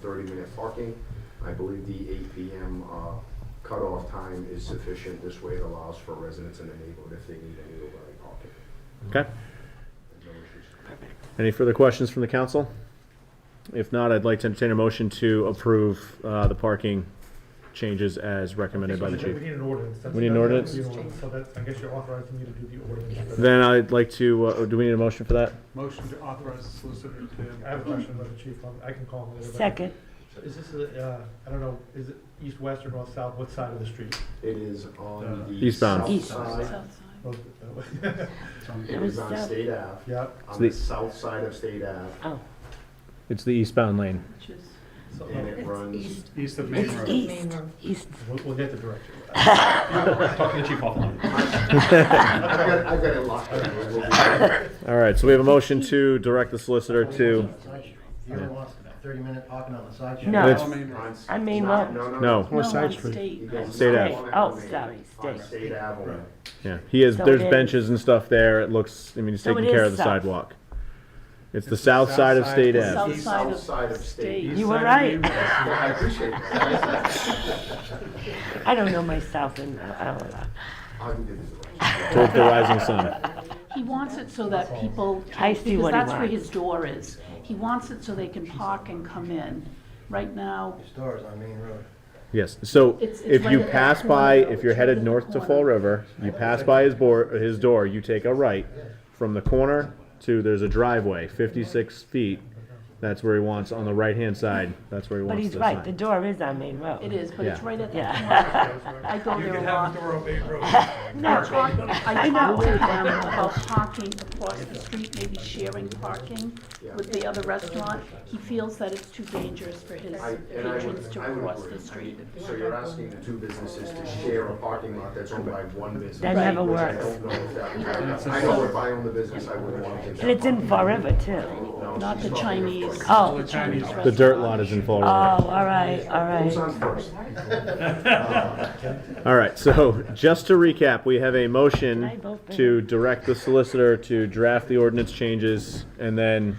thirty-minute parking. I believe the eight PM uh, cutoff time is sufficient. This way it allows for residents in the neighborhood if they need any overnight parking. Okay. There's no issues. Any further questions from the council? If not, I'd like to entertain a motion to approve uh, the parking changes as recommended by the We chief. need an ordinance. That's- We need an that's- ordinance? you know, So that's, I guess you're authorizing me to do the ordinance. Then I'd like to, uh, do we need a motion for that? Motion to authorize the solicitor I to. have a question about the chief, um, I can call him later. but- Second. Is this, the, uh, I don't know, is it east, west, or north, south, what side of the street? It is on the Eastbound. south East. side. Oh, It is on State Ave, Yeah, on the south side of State Ave, Oh, It's the eastbound lane. so, and uh, it runs East of Main it's Road. east, east. we'll, we'll get the direction. Talking to Chief offline. I've got, I've got it locked down. We'll be back. All right, so we have a motion to direct the solicitor to, You ever lost a thirty-minute parking on the side? street? No. It's- On Main Road. On- I mean, not- well- no, No, on state. You on guys- State Ave. Oh, sorry, On state. State Ave only. yeah, he has, So there's it is- benches and stuff there, it looks, I mean, he's So it taking care is of the south. sidewalk. It's the south side of State The Ave. south side of South side of state. You were right. Yeah, I appreciate that. I don't know myself and uh, I don't know. I'll give you the right. towards the rising sun. He wants it so that people, I can- see because what he that's where wants. his door is. He wants it so they can park and come in. Right now, Your store is on Main Road. Yes, so It's- it's if right you at that pass corner, by, it's if you're right at headed the north to corner. Fall River, you pass by his board, his door, you take a right. From the corner to, there's a driveway, fifty-six feet, that's where he wants, on the right-hand side, that's where he But wants he's the right, the sign. door is on Main Road. it is, but it's Yeah. right at the Yeah. corner. I go You there can a have lot. a door on Main Road. I talk, I talk to them about parking across the street, maybe sharing parking with the other restaurant. He feels that it's too dangerous for his I- And I patrons would, to I would cross agree. the I street. mean, so you're asking the two businesses to share a parking lot that's owned by one business. That never which I works. don't know if that would happen. I know if I owned the business, I wouldn't want to get that. And it's in Fall River too. parking. No, Not the she's talking of Chinese. first. Oh, The Chinese The dirt lot is in Fall oh, River. all right, all Who's right. on first? All right, so just to recap, we have a Can I motion vote for to direct the solicitor to draft the ordinance changes, and then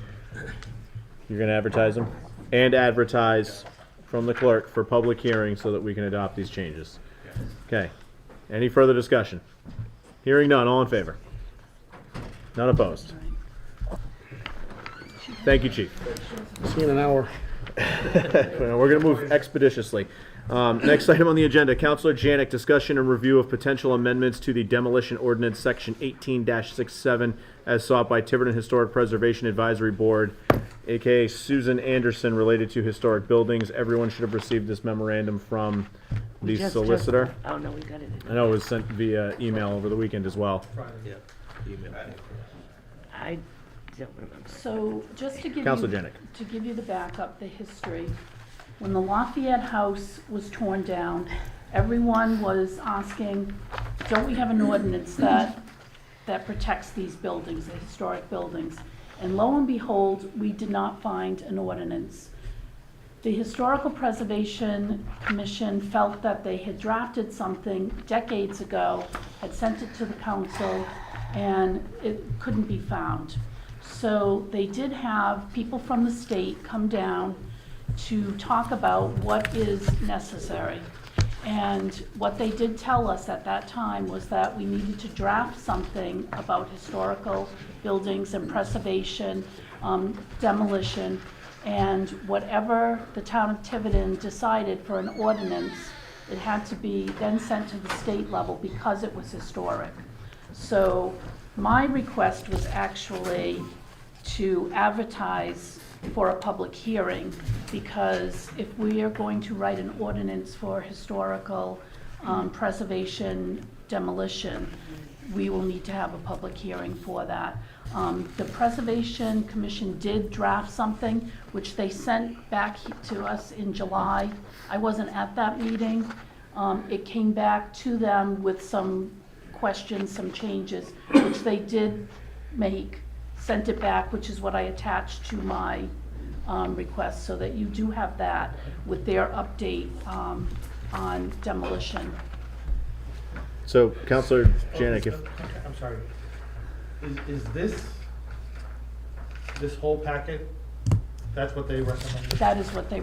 you're gonna advertise them? And advertise from the clerk for public hearing so that we can adopt these changes. Okay, any further discussion? Hearing none, all in favor? None opposed? Thank you, chief. See you in an hour. We're gonna move expeditiously. Um, next item on the agenda, Counselor Janik, discussion and review of potential amendments to the demolition ordinance, section eighteen 67 as sought by Tiverton Historic Preservation Advisory Board, AKA Susan Anderson, related to historic buildings. Everyone should have received this memorandum from the Just- just- solicitor. Oh, no, we got it. I know it was sent via email over the weekend as well. I don't remember. So just to give you. Counselor Janik. To give you the backup, the history, when the Lafayette House was torn down, everyone was asking, don't we have an ordinance that, that protects these buildings, the historic buildings? And lo and behold, we did not find an ordinance. The Historical Preservation Commission felt that they had drafted something decades ago, had sent it to the council, and it couldn't be found. So they did have people from the state come down to talk about what is necessary. And what they did tell us at that time was that we needed to draft something about historical buildings and preservation, um, demolition, and whatever the town of Tiverton decided for an ordinance, it had to be then sent to the state level because it was historic. So my request was actually to advertise for a public hearing, because if we are going to write an ordinance for historical um, preservation demolition, we will need to have a public hearing for that. Um, The Preservation Commission did draft something, which they sent back he- to us in July. I wasn't at that meeting. Um, It came back to them with some questions, some changes, which they did make, sent it back, which is what I attached to my um, request, so that you do have that with their update um, on demolition. So Counselor Janik, if, I'm sorry, is, is this, this whole packet, that's what they recommended? That is what they